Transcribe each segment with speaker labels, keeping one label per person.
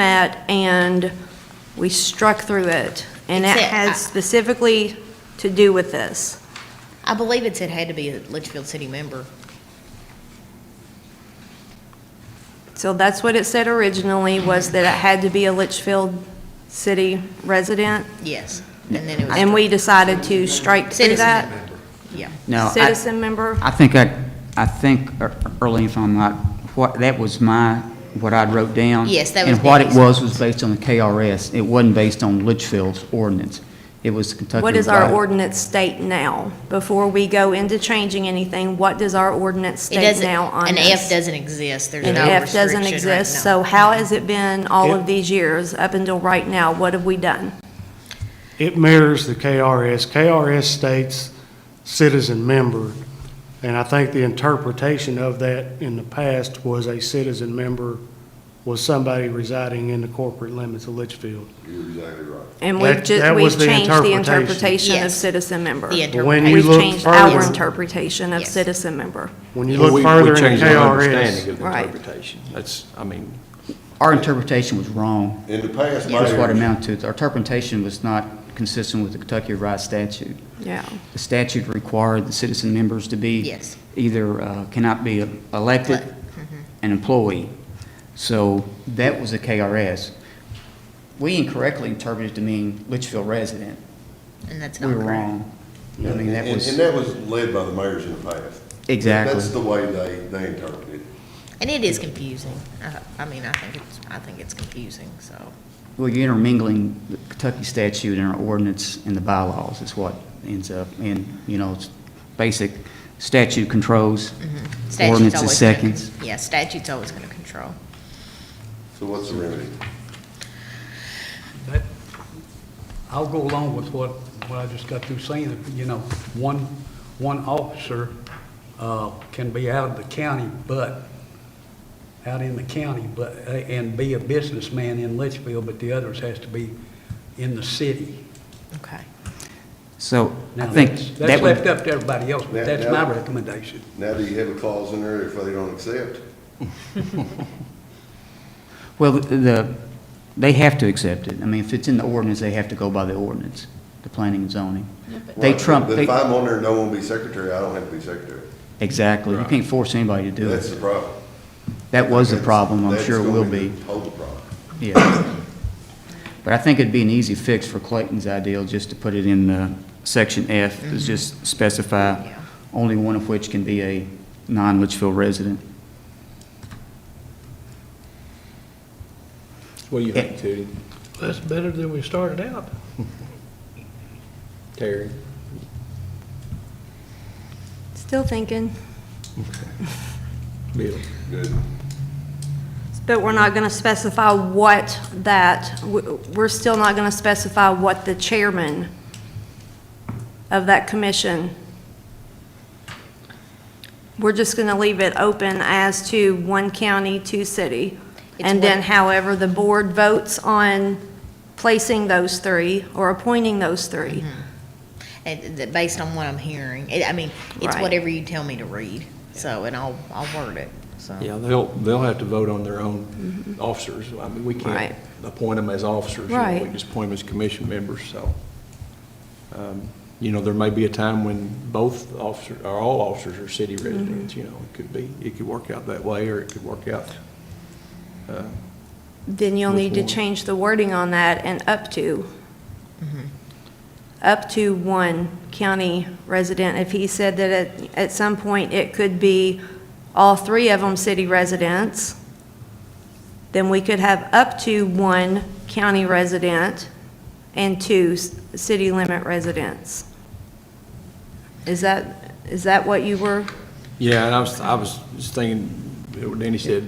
Speaker 1: met and we struck through it. And it
Speaker 2: That's it.
Speaker 1: has specifically to do with this.
Speaker 2: I believe it said had to be a Litchfield city member.
Speaker 1: So that's what it said originally, was that it had to be a Litchfield city resident.
Speaker 2: Yes. And then it was.
Speaker 1: And we decided to strike through
Speaker 2: Citizen.
Speaker 1: that.
Speaker 2: Yeah.
Speaker 3: No, I,
Speaker 1: Citizen member,
Speaker 3: I think I, I think ear- early, if I'm not, what, that was my, what I wrote down.
Speaker 2: Yes, that was
Speaker 3: And what it
Speaker 2: Debbie's.
Speaker 3: was, was based on the KRS. It wasn't based on Litchfield's ordinance. It was Kentucky.
Speaker 1: what does our
Speaker 3: Revised-
Speaker 1: ordinance state now? Before we go into changing anything, what does our ordinance
Speaker 2: It
Speaker 1: state
Speaker 2: doesn't,
Speaker 1: now on
Speaker 2: an
Speaker 1: this?
Speaker 2: F doesn't exist. There's
Speaker 1: An
Speaker 2: no
Speaker 1: F
Speaker 2: restriction
Speaker 1: doesn't
Speaker 2: right
Speaker 1: exist,
Speaker 2: now.
Speaker 1: so how has it been all of
Speaker 4: It-
Speaker 1: these years, up until right now? What have we done?
Speaker 4: It mirrors the KRS. KRS states citizen member, and I think the interpretation of that in the past was a citizen member was somebody residing in the corporate limits of Litchfield.
Speaker 5: You're exactly right.
Speaker 1: And we've
Speaker 4: That- that
Speaker 1: just,
Speaker 4: was
Speaker 1: we've
Speaker 4: the
Speaker 1: changed the
Speaker 4: interpretation.
Speaker 1: interpretation of
Speaker 2: Yes.
Speaker 1: citizen member.
Speaker 2: The
Speaker 4: But when
Speaker 2: interpretation.
Speaker 4: you
Speaker 1: We've
Speaker 4: look
Speaker 1: changed our
Speaker 4: further-
Speaker 1: interpretation of
Speaker 2: Yes.
Speaker 1: citizen member.
Speaker 4: When you
Speaker 5: Well, we-
Speaker 4: look
Speaker 5: we
Speaker 4: further in
Speaker 5: changed our
Speaker 4: KRS,
Speaker 5: understanding of the
Speaker 1: Right.
Speaker 5: interpretation. That's, I mean.
Speaker 3: Our interpretation was wrong.
Speaker 5: In the past,
Speaker 3: That's what it
Speaker 5: mayors,
Speaker 3: amounted to. Our interpretation was not consistent with the Kentucky Revised Statute.
Speaker 1: Yeah.
Speaker 3: The statute required the citizen members to be.
Speaker 2: Yes. Mm-hmm.
Speaker 3: Either uh, cannot be elected, an employee. So that was the KRS. We incorrectly interpreted it to mean Litchfield resident.
Speaker 2: And that's
Speaker 3: We
Speaker 2: not
Speaker 3: were
Speaker 2: correct.
Speaker 3: wrong. I
Speaker 5: And,
Speaker 3: mean, that
Speaker 5: and
Speaker 3: was,
Speaker 5: that was led by the mayors in the past.
Speaker 3: Exactly.
Speaker 5: That's the way they, they interpreted it.
Speaker 2: And it is confusing. I, I mean, I think it's, I think it's confusing, so.
Speaker 3: well, you're intermingling the Kentucky statute and our ordinance and the bylaws is what ends up. And, you know, it's basic statute controls.
Speaker 2: Mm-hmm. statute's
Speaker 3: Ordinance is
Speaker 2: always gonna-
Speaker 3: seconds.
Speaker 2: Yeah, statute's always gonna control.
Speaker 5: So what's the remedy?
Speaker 6: That, I'll go along with what, what I just got through saying, you know, one, one officer, uh, can be out of the county, but, out in the county, but, uh, and be a businessman in Litchfield, but the others has to be in the city.
Speaker 2: Okay.
Speaker 3: So I
Speaker 6: Now,
Speaker 3: think
Speaker 6: that's-
Speaker 3: that
Speaker 6: That's
Speaker 3: would.
Speaker 6: left up to everybody else, but
Speaker 5: That-
Speaker 6: that's
Speaker 5: that-
Speaker 6: my recommendation.
Speaker 5: Now, do you have a clause in there if they don't accept?
Speaker 3: Well, the, they have to accept it. I mean, if it's in the ordinance, they have to go by the ordinance, the planning and zoning. They
Speaker 5: Well,
Speaker 3: trump,
Speaker 5: But
Speaker 3: they,
Speaker 5: if I'm on there and no one be secretary, I don't have to be secretary.
Speaker 3: exactly. You can't force anybody to do
Speaker 5: That's the
Speaker 3: it.
Speaker 5: problem.
Speaker 3: That was the problem, I'm
Speaker 5: That's-
Speaker 3: sure it
Speaker 5: that's
Speaker 3: will
Speaker 5: gonna
Speaker 3: be,
Speaker 5: the Whole problem.
Speaker 3: yeah. But I think it'd be an easy fix for Clayton's ideal, just to put it in uh, section F, is just specify
Speaker 2: Yeah.
Speaker 3: only one of which can be a non-Litchfield resident.
Speaker 7: What do you think, Tootie?
Speaker 8: That's better than we started out.
Speaker 7: Terry?
Speaker 1: Still thinking,
Speaker 7: Bill?
Speaker 5: Good.
Speaker 1: but we're not going to specify what that, w- we're still not going to specify what the chairman of that commission. We're just going to leave it open as to one county, two city.
Speaker 2: It's
Speaker 1: And then
Speaker 2: what-
Speaker 1: however the board votes on placing those three or appointing those
Speaker 2: Mm-hmm.
Speaker 1: three.
Speaker 2: And th- based on what I'm hearing, it, I mean, it's
Speaker 1: Right.
Speaker 2: whatever you tell me to read, so, and I'll, I'll word it, so.
Speaker 7: Yeah, they'll, they'll have to vote on their own officers. I mean, we
Speaker 1: Mm-hmm. Right.
Speaker 7: can't appoint them as officers. you know, We
Speaker 1: Right.
Speaker 7: just appoint them as commission members, so. um, You know, there may be a time when both officers, or all officers are city
Speaker 1: Mm-hmm.
Speaker 7: residents, you know, it could be, it could work out that way, or it could work out. uh,
Speaker 1: Then you'll need to
Speaker 7: Which one?
Speaker 1: change the wording on that and up to. Up to one county resident. If he said that at, at some point it could be all three of them city residents, then we could have up to one county resident and two s- city limit residents. Is that, is that what you were?
Speaker 7: Yeah, and I was, I was just thinking, what Danny said,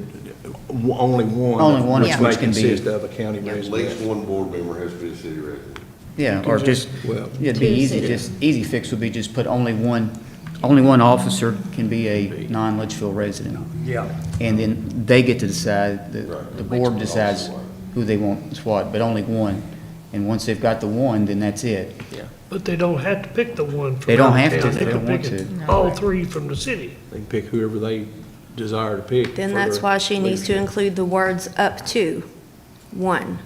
Speaker 7: w- only one.
Speaker 3: Only one
Speaker 2: of
Speaker 3: which can be-
Speaker 7: May consist of a county
Speaker 5: At
Speaker 7: resident.
Speaker 5: least one board member has to be a city resident.
Speaker 3: Yeah,
Speaker 7: can
Speaker 3: or just,
Speaker 7: just-
Speaker 3: yeah,
Speaker 7: well-
Speaker 3: it'd be
Speaker 2: Two
Speaker 3: easy,
Speaker 2: cities.
Speaker 3: just, easy fix would be just put only one, only one officer can be a non-Litchfield resident.
Speaker 6: Yeah.
Speaker 3: And then they get to decide, the,
Speaker 5: Right.
Speaker 3: the board decides who they want as what, but only one. And once they've got the one, then that's it.
Speaker 8: But they don't have to pick the one from.
Speaker 3: They don't
Speaker 8: out of
Speaker 3: have to
Speaker 8: town.
Speaker 3: if they
Speaker 8: can
Speaker 3: don't want
Speaker 8: pick it-
Speaker 3: to.
Speaker 8: All three from the city.
Speaker 7: They can pick whoever they desire to pick.
Speaker 1: Then
Speaker 7: for
Speaker 1: that's
Speaker 7: their
Speaker 1: why she needs to
Speaker 7: leadership.
Speaker 1: include the words up to. one.